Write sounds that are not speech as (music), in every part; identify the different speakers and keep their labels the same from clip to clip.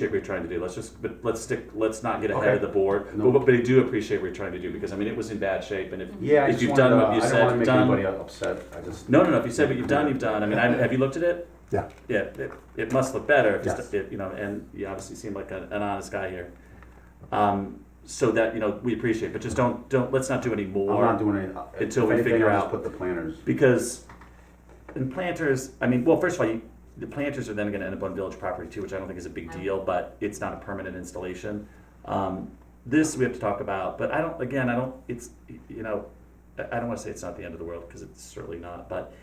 Speaker 1: appreciate what you're trying to do. Let's just, but let's stick. Let's not get ahead
Speaker 2: Okay.
Speaker 1: of the board.
Speaker 2: No.
Speaker 1: But, but I do appreciate what you're trying to do because I mean it was in bad shape. And if
Speaker 2: Yeah, I
Speaker 1: if
Speaker 2: just
Speaker 1: you've
Speaker 2: wanted
Speaker 1: done
Speaker 2: to-
Speaker 1: what you
Speaker 2: I
Speaker 1: said,
Speaker 2: don't want to
Speaker 1: you've
Speaker 2: make
Speaker 1: done.
Speaker 2: anybody upset. I just
Speaker 1: No, no, no. If you said what you've done, you've done. I mean, I, have you looked at it?
Speaker 3: Yeah.
Speaker 1: Yeah. It, it must look better. If
Speaker 3: Yes.
Speaker 1: it's, it, you know, and you obviously seem like a, an honest guy here. Um, so that you know, we appreciate, but just don't don't let's not do any
Speaker 2: I'm
Speaker 1: more
Speaker 2: not doing uh, it
Speaker 1: until we figure out-
Speaker 2: Put the planners.
Speaker 1: because in planters. I mean, well, first of all, you, the planters are then going to end up on village property too, which I don't think is a big deal, but it's not a permanent installation. Um, this we have to talk about, but I don't. Again, I don't. It's you know, I I don't want to say it's not the end of the world because it's certainly not, but.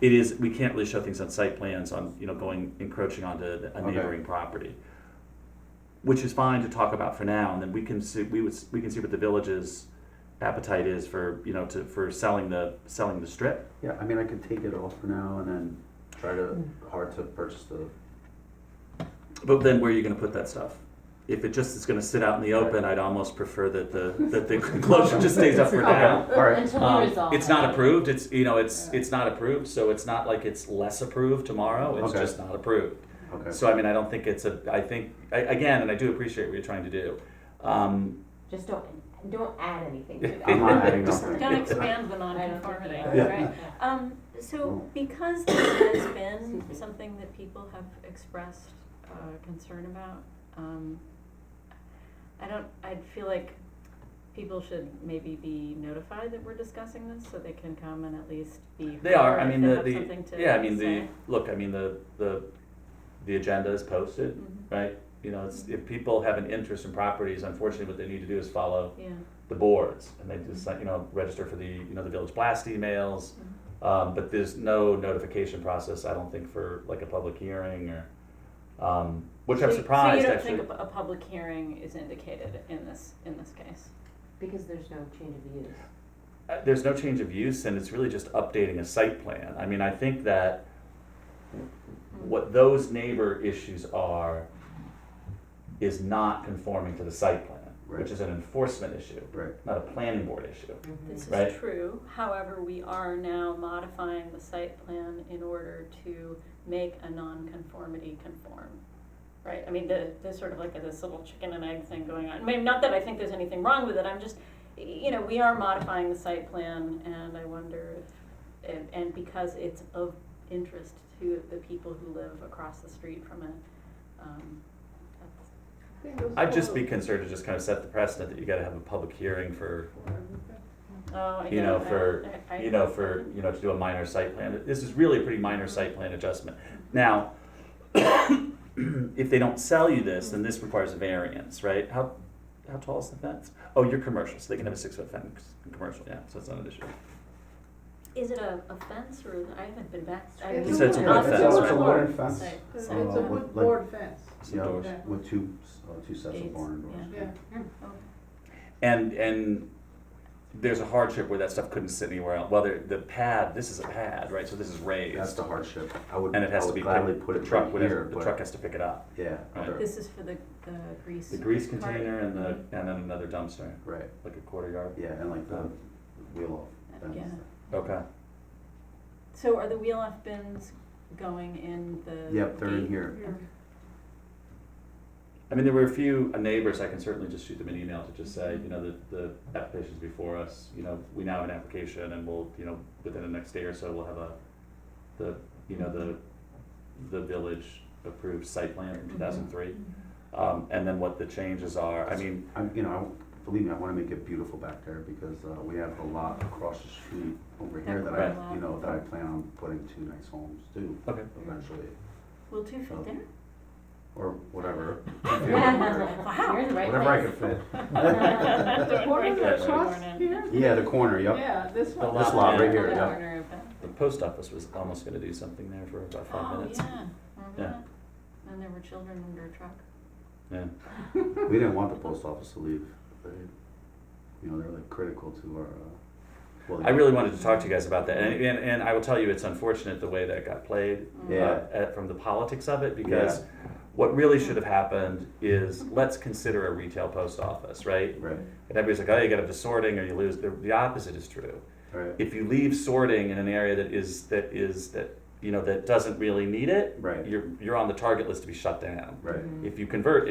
Speaker 1: It is, we can't really show things on site plans on, you know, going, encroaching onto a
Speaker 2: Okay.
Speaker 1: neighboring property. Which is fine to talk about for now, and then we can see, we would, s- we can see what the village's appetite is for, you know, to, for selling the, selling the strip.
Speaker 2: Yeah, I mean, I could take it off for now and then try to,
Speaker 1: Mm.
Speaker 2: hard to purchase the,
Speaker 1: But then where are you gonna put that stuff? If it just is gonna sit out in the open, I'd almost prefer that the, that the (laughs) enclosure just stays up for now.
Speaker 2: all right.
Speaker 4: Until we
Speaker 1: Um,
Speaker 4: resolve.
Speaker 1: it's not approved, it's, you know, it's, it's not approved, so it's not like it's less approved tomorrow, it's
Speaker 2: Okay.
Speaker 1: just not approved.
Speaker 2: okay.
Speaker 1: So I mean, I don't think it's a, I think, I- again, and I do appreciate what you're trying to do. Um,
Speaker 4: Just don't, don't add anything to that.
Speaker 2: I'm not adding
Speaker 1: Just-
Speaker 2: nothing.
Speaker 5: Don't expand the
Speaker 4: I don't think
Speaker 5: nonconformity,
Speaker 4: that-
Speaker 5: right?
Speaker 4: Yeah.
Speaker 5: Um,
Speaker 2: Oh.
Speaker 5: so because this has
Speaker 1: (coughs)
Speaker 5: been
Speaker 4: Excuse me.
Speaker 5: something that people have expressed, uh, concern about, um, I don't, I'd feel like people should maybe be notified that we're discussing this, so they can come and at least be.
Speaker 1: They are,
Speaker 5: heard
Speaker 1: I
Speaker 5: if
Speaker 1: mean,
Speaker 5: they
Speaker 1: the,
Speaker 5: have something
Speaker 1: the,
Speaker 5: to
Speaker 1: yeah, I mean, the,
Speaker 5: say.
Speaker 1: look, I mean, the, the, the agenda is posted,
Speaker 5: Mhm,
Speaker 1: right? You know, it's, if people have an interest in properties, unfortunately, what they need to do is follow
Speaker 5: Yeah,
Speaker 1: the boards. And they just, like, you know, register for the, you know, the village blast emails.
Speaker 5: Mm-hmm.
Speaker 1: Um, but there's no notification process, I don't think, for like a public hearing or, um, which
Speaker 5: So
Speaker 1: I'm
Speaker 5: you-
Speaker 1: surprised
Speaker 5: So you
Speaker 1: actually.
Speaker 5: don't think a, pu- a public hearing is indicated in this, in this case?
Speaker 4: Because there's no change of use.
Speaker 1: Uh, there's no change of use and it's really just updating a site plan. I mean, I think that
Speaker 5: Mm. Hmm.
Speaker 1: what those neighbor issues are is not conforming to the site plan,
Speaker 2: Right.
Speaker 1: which is an enforcement issue,
Speaker 2: Right,
Speaker 1: not a planning board issue.
Speaker 5: This
Speaker 1: Right.
Speaker 5: is true, however, we are now modifying the site plan in order to make a non-conformity conform. Right, I mean, the, there's sort of like this little chicken and egg thing going on, I mean, not that I think there's anything wrong with it, I'm just, y- you know, we are modifying the site plan, and I wonder if, and, and because it's of interest to the people who live across the street from it, um, that's,
Speaker 1: I'd just be concerned to just kind of set the precedent that you gotta have a public hearing for,
Speaker 5: oh, I
Speaker 1: You know,
Speaker 5: don't- I-
Speaker 1: for-
Speaker 5: (laughs) I- I-
Speaker 1: you know, for, you know, to do a minor site plan. This is really a pretty minor site plan adjustment. Now, (coughs) if they don't sell you this, then this requires a variance, right? How, how tall is the fence? Oh, you're commercial, so they can have a six foot fence in commercial, yeah, so it's not an issue.
Speaker 5: Is it a, a fence or, I haven't been back. I
Speaker 6: It's
Speaker 1: a It's a wooden wooden fence. fence.
Speaker 2: It's a wooden fence.
Speaker 5: Site.
Speaker 6: It's
Speaker 5: Site.
Speaker 6: a
Speaker 2: with,
Speaker 6: wood
Speaker 2: like-
Speaker 6: board fence,
Speaker 1: Some
Speaker 2: yeah,
Speaker 1: doors.
Speaker 2: with two, s- uh, two sets of
Speaker 5: Gates,
Speaker 2: barn doors.
Speaker 5: yeah.
Speaker 6: yeah.
Speaker 1: And, and there's a hardship where that stuff couldn't sit anywhere else. Well, there- the pad, this is a pad, right, so this is
Speaker 2: That's
Speaker 1: raised.
Speaker 2: the hardship. I would,
Speaker 1: And it
Speaker 2: I
Speaker 1: has to
Speaker 2: would
Speaker 1: be,
Speaker 2: gladly
Speaker 1: picked-
Speaker 2: put
Speaker 1: the
Speaker 2: it
Speaker 1: truck,
Speaker 2: right
Speaker 1: would
Speaker 2: here,
Speaker 1: have- the truck
Speaker 2: but,
Speaker 1: has to pick it up.
Speaker 2: yeah,
Speaker 1: Right.
Speaker 2: other-
Speaker 5: This is for the, the grease.
Speaker 1: The grease
Speaker 5: cart.
Speaker 1: container and the, and then another dumpster,
Speaker 2: right,
Speaker 1: like a quarter yard.
Speaker 2: yeah, and like the wheel off
Speaker 5: Yeah.
Speaker 2: fence.
Speaker 1: Okay.
Speaker 5: So are the wheel off bins going in the?
Speaker 2: Yep, they're in
Speaker 5: gate?
Speaker 2: here.
Speaker 5: Okay.
Speaker 1: I mean, there were a few uh, neighbors, I can certainly just shoot them an email to just say, you know, the, the application's before us, you know, we now have an application and we'll, you know, within the next day or so, we'll have a, the, you know, the, the village approved site plan
Speaker 5: Mm-hmm.
Speaker 1: from two thousand three. Um, and then what the changes are, I mean,
Speaker 2: I'm, you know, I- believe me, I wanna make it beautiful back there because, uh, we have a lot across the street over here that I,
Speaker 5: Right.
Speaker 2: you know, that I plan on putting two nice homes to
Speaker 1: okay,
Speaker 2: eventually,
Speaker 5: Will two fit there?
Speaker 2: or whatever.
Speaker 5: (laughs) Wow.
Speaker 4: You're in the right
Speaker 2: Whatever I
Speaker 4: place.
Speaker 2: can fit.
Speaker 5: (laughs) The
Speaker 6: What is it, across here?
Speaker 2: Yeah, the corner, yep.
Speaker 6: Yeah, this
Speaker 1: The
Speaker 6: one.
Speaker 1: lot.
Speaker 2: This lot right here,
Speaker 5: The
Speaker 2: yeah.
Speaker 5: corner of that.
Speaker 1: the post office was almost gonna do something there for about five
Speaker 5: Oh,
Speaker 1: minutes.
Speaker 5: yeah, remember
Speaker 1: Yeah.
Speaker 5: that? And there were children under a truck.
Speaker 1: Yeah.
Speaker 2: We didn't want the post office to leave. They, you know, they're like critical to our, uh, well.
Speaker 1: I really wanted to talk to you guys about that, and, and, and I will tell you, it's unfortunate the way that got played.
Speaker 2: Yeah.
Speaker 1: uh, at, from the politics of it because what really should have happened is let's consider a retail post office, right?
Speaker 2: Right,
Speaker 1: And everybody's like, oh, you got to have the sorting or you lose. The, the opposite is true.
Speaker 2: right.
Speaker 1: If you leave sorting in an area that is that is that you know, that doesn't really need it,
Speaker 2: Right.
Speaker 1: you're, you're on the target list to be shut down.
Speaker 2: Right.
Speaker 5: (laughs)
Speaker 4: Mhm.
Speaker 1: If you convert